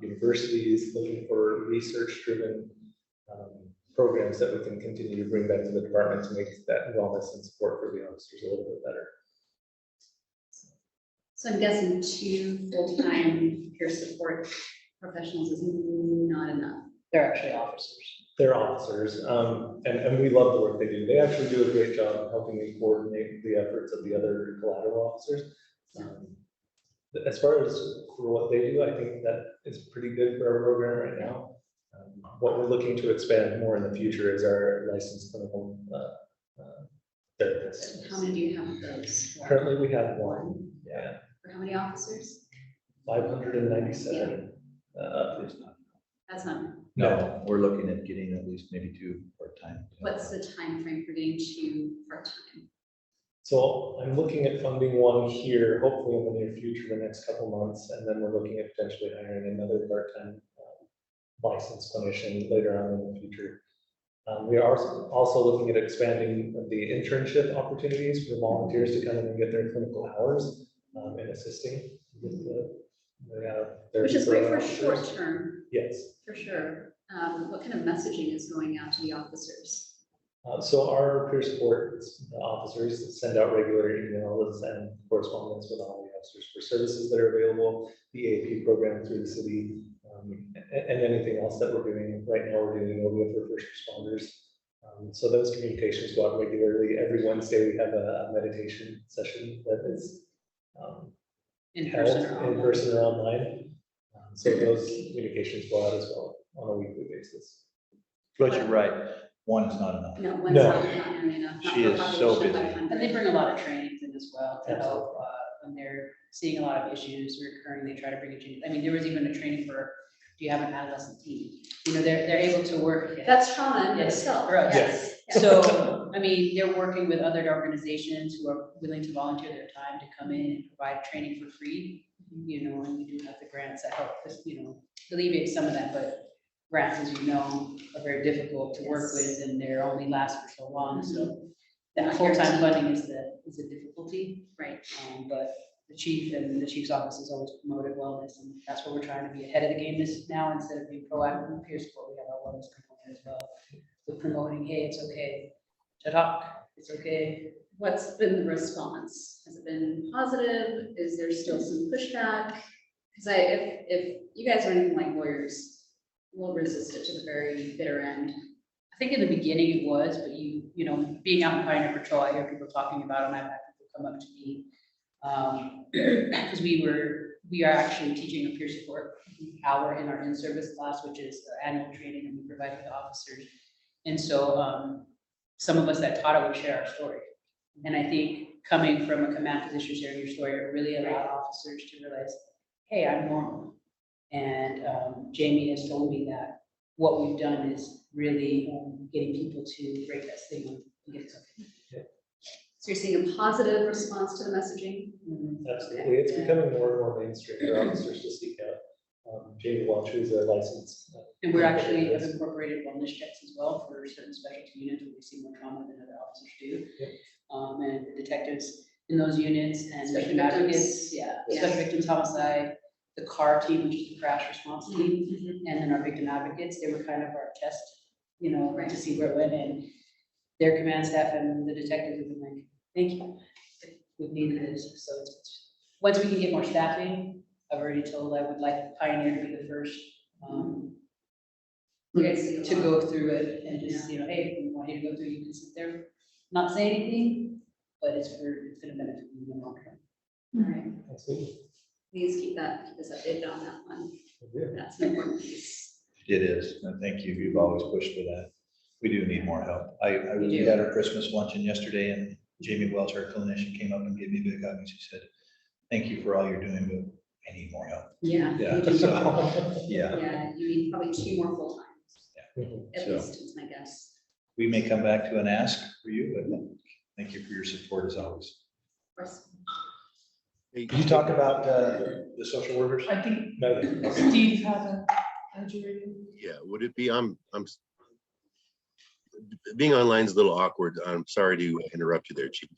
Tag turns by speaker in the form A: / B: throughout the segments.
A: universities Um, looking for research-driven um, programs that we can continue to bring back to the department to make that wellness and support for the officers a little bit better.
B: So I'm guessing two full-time peer support professionals is not enough.
C: They're actually officers.
A: They're officers, um, and, and we love the work they do. They actually do a great job of helping me coordinate the efforts of the other collateral officers. Um, but As far as for what they do, I think that is pretty good for our program right now. Um, What we're looking to expand more in the future is our licensed clinical, uh, uh, therapists.
B: How many do you have of those?
A: Currently, we have one, yeah,
B: For how many officers?
A: five hundred and ninety-seven.
D: It's not.
B: That's not, enough.
D: Uh, No, we're looking at getting at least maybe two part-time.
B: what's the time frame for getting two part-time?
A: So I'm looking at funding one here, hopefully in the near future, the next couple months, and then we're looking at potentially hiring another part-time um, licensed clinician later on in the future. Um, we are also looking at expanding the internship opportunities for volunteers to come in and get their clinical hours um, and assisting with the. the, uh, their-
B: Which is great for short-term,
A: Yes.
B: for sure. Um, what kind of messaging is going out to the officers?
A: Uh, so our peer support officers send out regular emails and correspondence with all the officers for services that are available, the AP program through the city, um, a- and, anything else that we're doing. Right now, we're doing over with our first responders. Um, so those communications go out regularly. Every Wednesday, we have a a meditation session that is um,
C: In
A: held
C: person or
A: in
C: online.
A: person or online. Um, So those communications go out as well on a weekly basis.
D: But you're right, one is not enough.
B: No, one's
A: No.
B: not, not nearly enough. not
D: She
B: for a
D: is so
B: population of
D: busy.
B: 500.
C: And they bring a lot of trainings in as well to
A: Absolutely.
C: help, uh, when they're seeing a lot of issues recurring, they try to bring it to, I mean, there was even a training for, do you have an adolescent teen? You know, they're, they're able to work.
B: That's trauma in
C: Yes,
B: itself.
C: right.
B: Yes.
C: So, I mean, they're working with other organizations who are willing to volunteer their time to come in and provide training for free. You know, and we do have the grants that help, you know, alleviate some of that, but grants, as you know, are very difficult to work
B: Yes. Mm-hmm.
C: with and they're only last for so long, so. That
B: Not guaranteed.
C: full-time funding is the, is a difficulty,
B: Right.
C: um, but the chief and the chief's office has always promoted wellness and that's what we're trying to be ahead of the game this now instead of being proactive in peer support, we have our wellness component as well with promoting, hey, it's okay to talk, it's okay.
B: What's been the response? Has it been positive? Is there still some pushback? Because I, if, if you guys are anything like lawyers, we'll resist it to the very bitter end.
C: I think in the beginning it was, but you, you know, being out in Pioneer Patrol, I hear people talking about it, and I've had people come up to me. Um, because we were, we are actually teaching a peer support hour in our in-service class, which is the annual training that we provide to the officers. And so, um, some of us that taught it would share our story. And I think coming from a command position, sharing your story, it really allowed officers to realize, hey, I'm normal. And, um, Jamie has told me that what we've done is really, um, getting people to break that stigma. and get something.
B: So you're seeing a positive response to the messaging?
A: Absolutely, it's becoming more and more mainstream for officers to seek out. Um, Jamie Welch, who's a licensed, uh,
C: And we're actually have incorporated wellness checks as well for certain specialty units where we see more trauma than other officers do.
A: Yep.
C: Um, and the detectives in those units and
B: Special
C: special advocates,
B: victims.
C: yeah,
B: Yeah.
C: special victims homicide, the CAR team, which is the crash response team,
B: Mhm.
C: and then our victim advocates, they were kind of our test, you know,
B: Right.
C: to see where it went, and their command staff and the detectives have been like, thank you, we needed this, so it's, once we can get more staffing, I've already told I would like Pioneer to be the first, um,
B: You guys see a
C: to
B: lot.
C: go through it and just, you know, hey, if we want you to go through, you can sit there, not say anything, but it's for, it's gonna benefit you in the long term.
B: All right,
A: absolutely.
B: please keep that, keep us updated on that one.
A: yeah.
B: That's an important piece.
D: It is, and thank you, you've always pushed for that. We do need more help. I, I,
C: We
D: we
C: do.
D: had our Christmas luncheon yesterday and Jamie Welch, our clinician, came up and gave me a big hug and she said, thank you for all you're doing, but I need more help.
B: Yeah.
D: Yeah,
B: you do.
D: so- Yeah,
B: Yeah, you need probably two more full-times,
A: Mhm.
B: at
D: So-
B: least, is my guess.
D: we may come back to an ask for you, but thank you for your support as always.
B: Of course.
D: Did you talk about, uh, the social workers?
E: I think
A: No, no.
E: Steve had a, a jury.
F: Yeah, would it be, I'm, I'm. s- Being online is a little awkward. I'm sorry to interrupt you there, chief.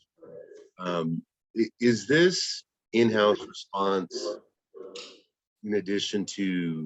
F: Um, i- is this in-house response? In addition to